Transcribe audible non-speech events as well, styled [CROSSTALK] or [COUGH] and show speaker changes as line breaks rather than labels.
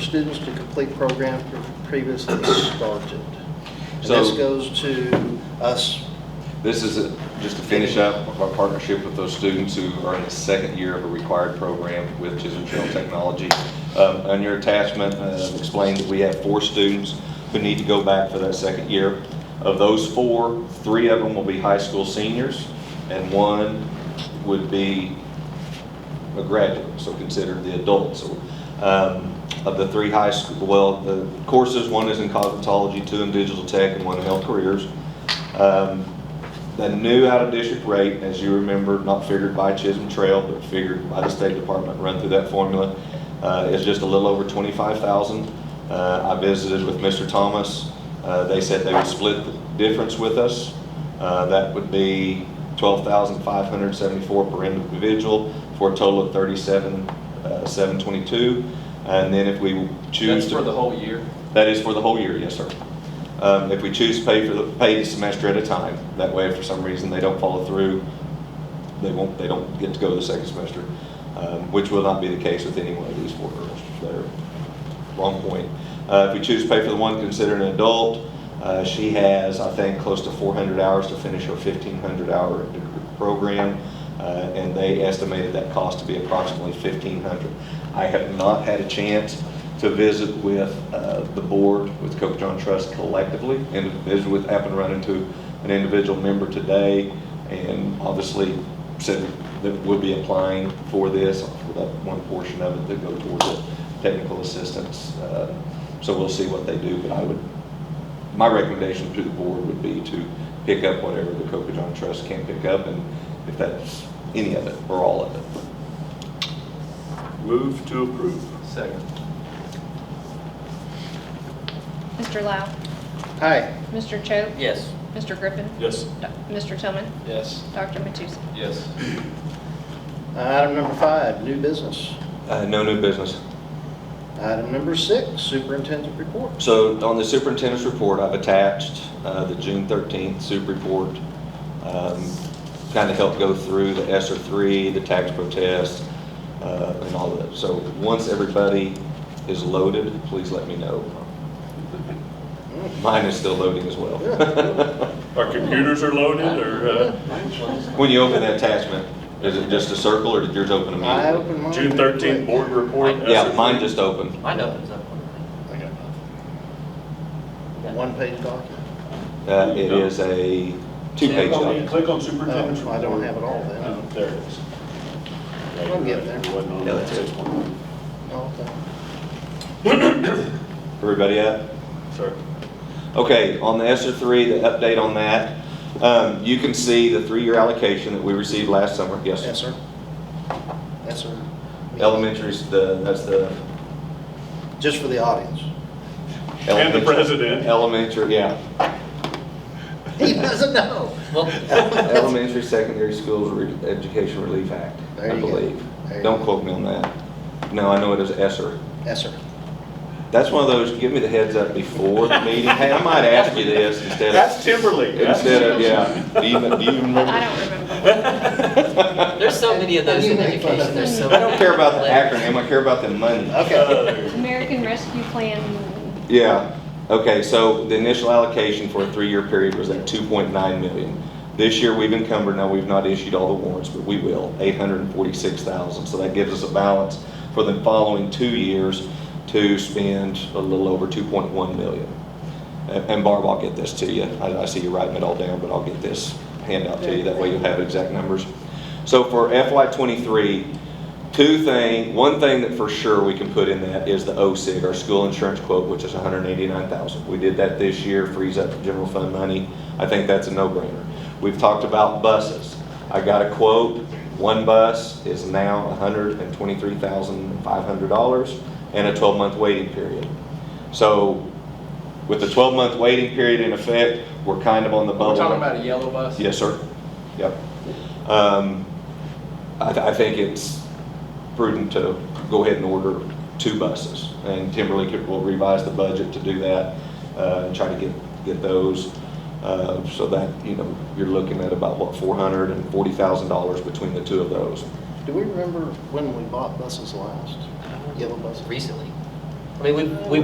students to complete programs previously started. And
So-
this goes to us,
This is a- just to finish up our partnership with those students who are in the second year of a required program with Chisholm Trail Technology. Um, On your attachment, uh, explained that we have four students who need to go back for that second year. Of those four, three of them will be high school seniors, and one would be a graduate, so considered the adult. So, um, Of the three high school, well, the courses, one is in cosmetology, two in digital tech, and one in health careers. Um, The new out-of-district rate, as you remember, not figured by Chisholm Trail, but figured by the State Department, run through that formula, uh, is just a little over twenty-five thousand. Uh, I visited with Mr. Thomas. Uh, They said they would split the difference with us. Uh, That would be twelve thousand five hundred seventy-four per individual, for a total of thirty-seven, uh, seven twenty-two. And then if we choose
That's
to.
for the whole year?
That is for the whole year, yes, sir. Um, If we choose to pay for, the pay the semester at a time, that way if for some reason they don't follow through, they won't, they don't get to go the second semester, um, which will not be the case with any one of these four girls. They're, wrong point. Uh, If we choose to pay for the one considered an adult, uh, she has, I think, close to 400 hours to finish her 1,500-hour program, uh, and they estimated that cost to be approximately 1,500. I have not had a chance to visit with uh, the board, with Coke John Trust collectively, and visit with, happened to run into an individual member today, and obviously said that we'll be applying for this, for that one portion of it that goes towards it, technical assistance. uh, So we'll see what they do, but I would, my recommendation to the board would be to pick up whatever the Cocoton Trust can pick up, and if that's any of it or all of it.
Move to approve.
Second.
Mr. Lau.
aye,
Mr. Cho.
Yes.
Mr. Griffin.
Yes.
Do- Mr. Tillman.
Yes.
Dr. Matusek.
Yes.
Item number five, new business.
Uh, No new business.
Item number six, superintendent report.
So on the superintendent's report, I've attached uh, the June 13th super report. Kind of helped go through the ESER 3, the tax protest, uh, and all of that. So once everybody is loaded, please let me know. Mine is still loading as well.
Our computers are loaded, or uh,
[LAUGHS] When you open the attachment, is it just a circle, or did yours open
I
immediately?
open mine.
June 13th board report?
Yeah, mine just opened.
Mine opens up.
I got nothing. One-page document.
Uh, It is a two-page
Click on-
document.
Click on superintendent's
Oh, I
report.
don't have it all then.
Oh, There it is.
I'll get there.
It wasn't on
Yeah,
that
that's it.
6.1.
Oh, okay.
Everybody up?
Sorry.
Okay, on the ESER three, the update on that, um, you can see the three-year allocation that we received last summer. Yes,
Yes,
sir.
sir. Yes, sir.
Elementary's the, that's the.
Just for the audience. [LAUGHS]
And the
elementary-
president.
Elementary,
[LAUGHS]
yeah.
He doesn't know.
Elementary, Secondary Schools Re- Education Relief Act,
There
I
you go.
believe.
There you
Don't
go.
quote me on that. No, I know it is ESER.
Yes, sir.
That's one of those, give me the heads up before the meeting. Hey, I might ask you this instead of.
That's Timberlake. That's
Instead of,
[LAUGHS]
yeah. Do you, do you remember?
I don't remember.
There's so many of those
You
in
make fun of
education, there's
me.
so
[LAUGHS] I
many.
don't care about the acronym, I care about the money.
[LAUGHS] Uh,
Okay.
American Rescue Plan.
Yeah, okay, so the initial allocation for a three-year period was at two point nine million. This year, we've encumbered, now we've not issued all the warrants, but we will, eight hundred and forty-six thousand. So that gives us a balance for the following two years to spend a little over two point one million. And and Barb, I'll get this to you. I, I see you writing it all down, but I'll get this handout to you. That way you'll have exact numbers. So for FY twenty-three, two thing, one thing that for sure we can put in that is the OSIG, our school insurance quote, which is hundred and eighty-nine thousand. We did that this year, frees up general fund money. I think that's a no-brainer. We've talked about buses. I got a quote, one bus is now hundred and twenty-three thousand five hundred dollars and a twelve-month waiting period. So with the 12-month waiting period in effect, we're kind of on the bubble.
We're talking about a yellow bus?
Yes, sir. Yep. Um, I, th- I think it's prudent to go ahead and order two buses. And Timberlake will revise the budget to do that, uh, and try to get, get those. Uh, so that, you know, you're looking at about, what, $440,000 between the two of those.
Do we remember when we bought buses last? Yellow buses?
Recently.
I mean, we, we